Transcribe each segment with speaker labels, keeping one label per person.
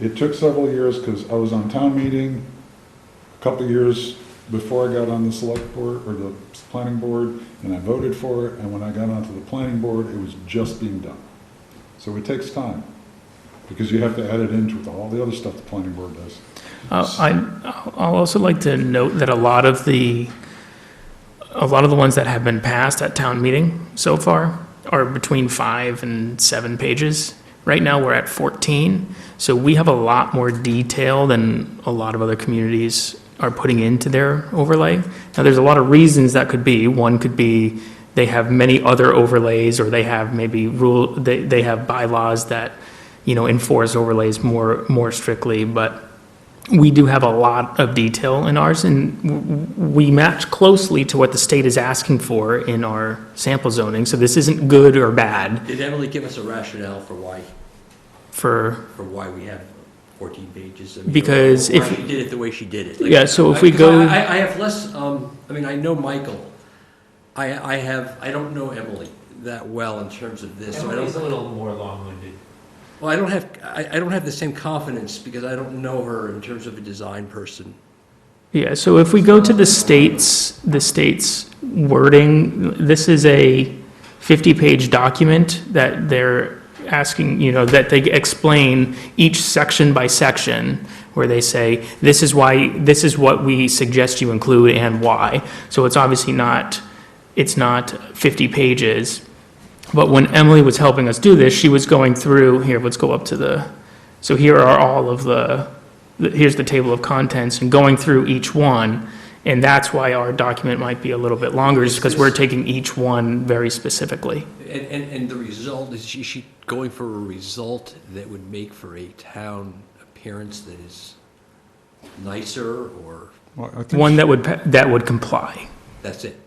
Speaker 1: It took several years because I was on town meeting a couple of years before I got on the select board or the planning board and I voted for it. And when I got onto the planning board, it was just being done. So it takes time because you have to add it into with all the other stuff the planning board does.
Speaker 2: Uh, I, I'll also like to note that a lot of the, a lot of the ones that have been passed at town meeting so far are between five and seven pages. Right now, we're at 14, so we have a lot more detail than a lot of other communities are putting into their overlay. Now, there's a lot of reasons that could be. One could be they have many other overlays, or they have maybe rule, they, they have bylaws that, you know, enforce overlays more, more strictly, but we do have a lot of detail in ours, and w- w- we match closely to what the state is asking for in our sample zoning, so this isn't good or bad
Speaker 3: Did Emily give us a rationale for why,
Speaker 2: for,
Speaker 3: for why we have 14 pages? I mean,
Speaker 2: Because
Speaker 3: or Why
Speaker 2: if-
Speaker 3: she did it the way she did it? Like,
Speaker 2: yeah, so if we
Speaker 3: I- 'cause I-
Speaker 2: go,
Speaker 3: I, I have less, um, I mean, I know Michael. I, I have, I don't know Emily that well in terms of this, so I
Speaker 4: Emily's a
Speaker 3: don't,
Speaker 4: little more long-winded.
Speaker 3: well, I don't have, I, I don't have the same confidence because I don't know her in terms of a design person.
Speaker 2: yeah, so if we go to the state's, the state's wording, this is a 50-page document that they're asking, you know, that they explain each section by section, where they say, this is why, this is what we suggest you include and why. So it's obviously not, it's not 50 pages. But when Emily was helping us do this, she was going through, here, let's go up to the, so here are all of the, the- here's the table of contents, and going through each one, and that's why our document might be a little bit longer, is because we're taking each one very specifically.
Speaker 3: And, and, and the result, is she, she going for a result that would make for a town appearance that is nicer or,
Speaker 1: Well, I think
Speaker 2: One
Speaker 1: she-
Speaker 2: that would, pa- that would comply.
Speaker 3: that's it?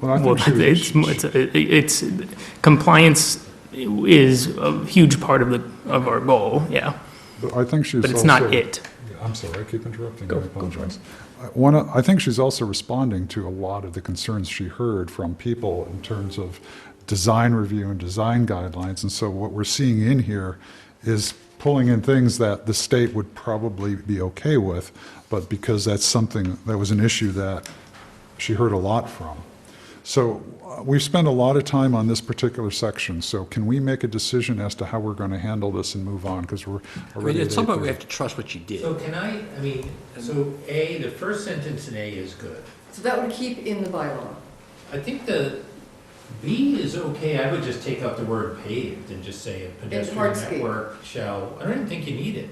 Speaker 1: well, I
Speaker 2: Well,
Speaker 1: think she-
Speaker 2: it's, it's, it's, compliance is a huge part of the, of our goal, yeah,
Speaker 1: I think she's
Speaker 2: but it's not
Speaker 1: also-
Speaker 2: it.
Speaker 1: Yeah, I'm sorry, I keep interrupting.
Speaker 2: Go-
Speaker 1: I
Speaker 2: go for it.
Speaker 1: apologize. I- One, of- I think she's also responding to a lot of the concerns she heard from people in terms of design review and design guidelines. And so what we're seeing in here is pulling in things that the state would probably be okay with, but because that's something, that was an issue that she heard a lot from. So uh, we've spent a lot of time on this particular section, so can we make a decision as to how we're going to handle this and move on? Because we're
Speaker 3: I mean,
Speaker 1: already at
Speaker 3: at some point, we
Speaker 1: 8:30.
Speaker 3: have to trust what she did.
Speaker 4: So can I, I mean, so A, the first sentence in A is good.
Speaker 5: So that would keep in the bylaw.
Speaker 4: I think the B is okay, I would just take out the word paved and just say a pedestrian
Speaker 5: hardscape.
Speaker 4: network shall, I don't even think you need it.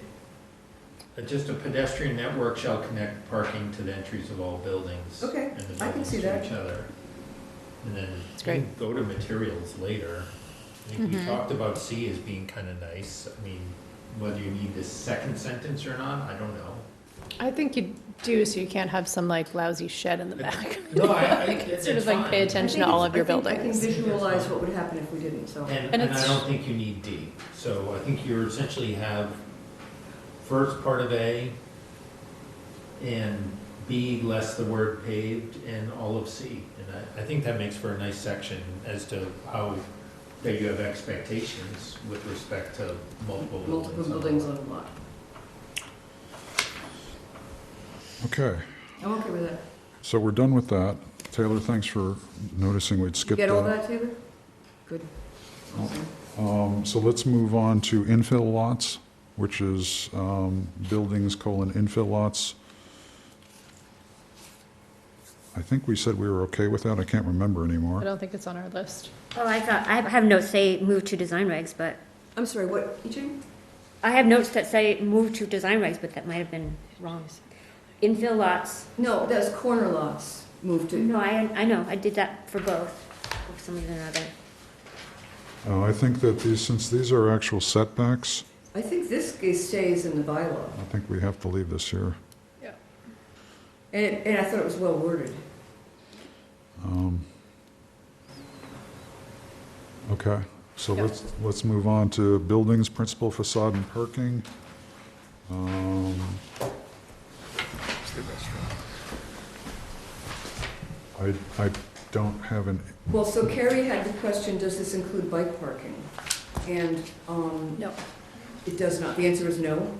Speaker 4: Uh, Just a pedestrian network shall connect parking to the entries of all buildings.
Speaker 5: Okay,
Speaker 4: and the
Speaker 5: I can
Speaker 4: buildings
Speaker 5: see
Speaker 4: to
Speaker 5: that.
Speaker 4: Each other. And then
Speaker 6: That's
Speaker 4: you
Speaker 6: great.
Speaker 4: can go to materials later. I think
Speaker 5: Mm-hmm.
Speaker 4: we talked about C as being kind of nice. I mean, whether you need this second sentence or not, I don't know.
Speaker 6: I think you do, so you can't have some like lousy shed in the back.
Speaker 4: No, I, I,
Speaker 6: Like,
Speaker 4: it's
Speaker 6: Sort of
Speaker 4: fine.
Speaker 6: like pay attention to all of your
Speaker 5: I can
Speaker 6: buildings.
Speaker 5: visualize what would happen if we didn't, so.
Speaker 4: And,
Speaker 6: And
Speaker 4: and I
Speaker 6: it's-
Speaker 4: don't think you need D. So I think you essentially have first part of A and B less the word paved and all of C. And I, I think that makes for a nice section as to how, that you have expectations with respect to multiple buildings.
Speaker 5: Multiple buildings on a lot.
Speaker 1: Okay.
Speaker 5: I'm okay with that.
Speaker 1: So we're done with that. Taylor, thanks for noticing we'd
Speaker 5: You
Speaker 1: skipped
Speaker 5: get all
Speaker 1: that.
Speaker 5: that, Taylor? Good. Awesome.
Speaker 1: Um, So let's move on to infill lots, which is um, buildings colon infill lots. I think we said we were okay with that. I can't remember
Speaker 6: I
Speaker 1: anymore.
Speaker 6: don't think it's on our list.
Speaker 7: Oh, I thought, I have notes say move to design regs, but,
Speaker 5: I'm sorry, what, you two?
Speaker 7: I have notes that say move to design regs, but that might have been wrong. Infill lots,
Speaker 5: No, that's corner lots moved to.
Speaker 7: no, I, I know, I did that for both, for some reason or another.
Speaker 1: Uh, I think that these, since these are actual setbacks,
Speaker 5: I think this g- stays in the bylaw.
Speaker 1: I think we have to leave this here.
Speaker 5: And, it- and I thought it was well worded.
Speaker 1: Um, Okay, so
Speaker 6: Yeah.
Speaker 1: let's, let's move on to buildings, principal facade and parking. Um, I, I don't have an,
Speaker 5: Well, so Carrie had the question, does this include bike parking? And, um,
Speaker 6: No.
Speaker 5: it does not. The answer is no.